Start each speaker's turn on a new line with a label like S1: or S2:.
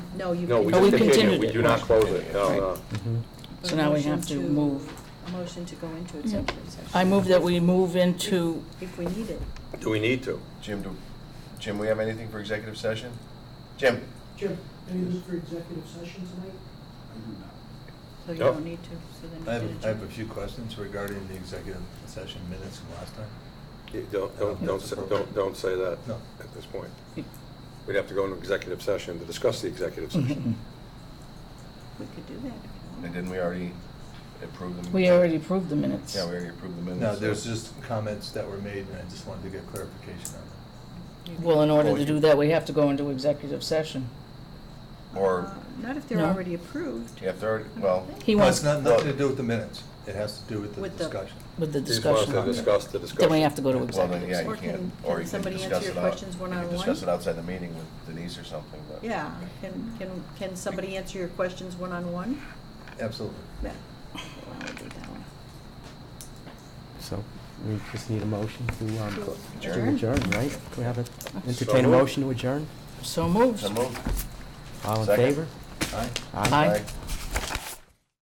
S1: No, you.
S2: No, we
S1: can-
S3: Oh, we
S2: just continue,
S3: continued
S2: we
S3: it.
S2: do not close it, no,
S3: Right.
S2: no.
S3: So now we have to
S1: Motion to-
S3: move.
S1: A motion to go into
S3: Yeah.
S1: executive session.
S3: I move that we move into,
S1: If we need it.
S2: Do we need to?
S4: Jim, do, Jim, we have anything for executive session? Jim?
S5: Jim, anything for executive session tonight? I do not.
S1: So you
S2: Yep.
S1: don't need to, so then.
S6: I
S1: you can
S6: have, I have a
S1: adjourn.
S6: few questions regarding the executive session minutes from last time.
S2: You Don't, don't, don't, say- don't, don't say that
S6: No.
S2: at this point. We'd have to go into executive session to discuss the executive
S3: Mm-hmm.
S2: session.
S1: We could do that. if you
S4: And
S1: want.
S4: didn't we already approve them?
S3: we already approved the minutes.
S4: Yeah, we already approved the minutes.
S6: No, there's just comments that were made, and I just wanted to get clarification on them.
S1: You could-
S3: Well, in order
S4: Well,
S3: to
S4: you-
S3: do that, we have to go into executive session.
S4: Or,
S1: Uh, Not if they're
S3: No.
S1: already approved.
S4: yeah, if they're, well,
S3: He
S6: No, it's
S3: wants,
S6: not, nothing to do with the minutes. It has to do with the
S1: With the-
S6: discussion.
S3: with the
S2: You just want us
S3: discussion.
S2: to discuss the discussion.
S3: Then we have to go to
S4: well, then,
S3: executive.
S4: yeah,
S3: session.
S4: you
S1: Or
S4: can't,
S1: can- can
S4: or you can
S1: somebody answer
S4: discuss
S1: your
S4: it out.
S1: questions
S4: You
S1: one-on-one?
S4: can discuss it outside the meeting with Denise or something, but.
S1: Yeah, can, can, can somebody answer your questions one-on-one?
S6: Absolutely.
S1: Yeah. Well, I would do it that way.
S7: So we just need a motion to um,
S1: To
S7: to
S1: adjourn.
S7: adjourn, right? Can we have a, entertain
S2: So
S7: a
S2: moved.
S7: motion to adjourn?
S3: So moved.
S4: So moved.
S7: All in
S4: Second.
S7: favor?
S6: Aye?
S3: Aye.
S4: Aye.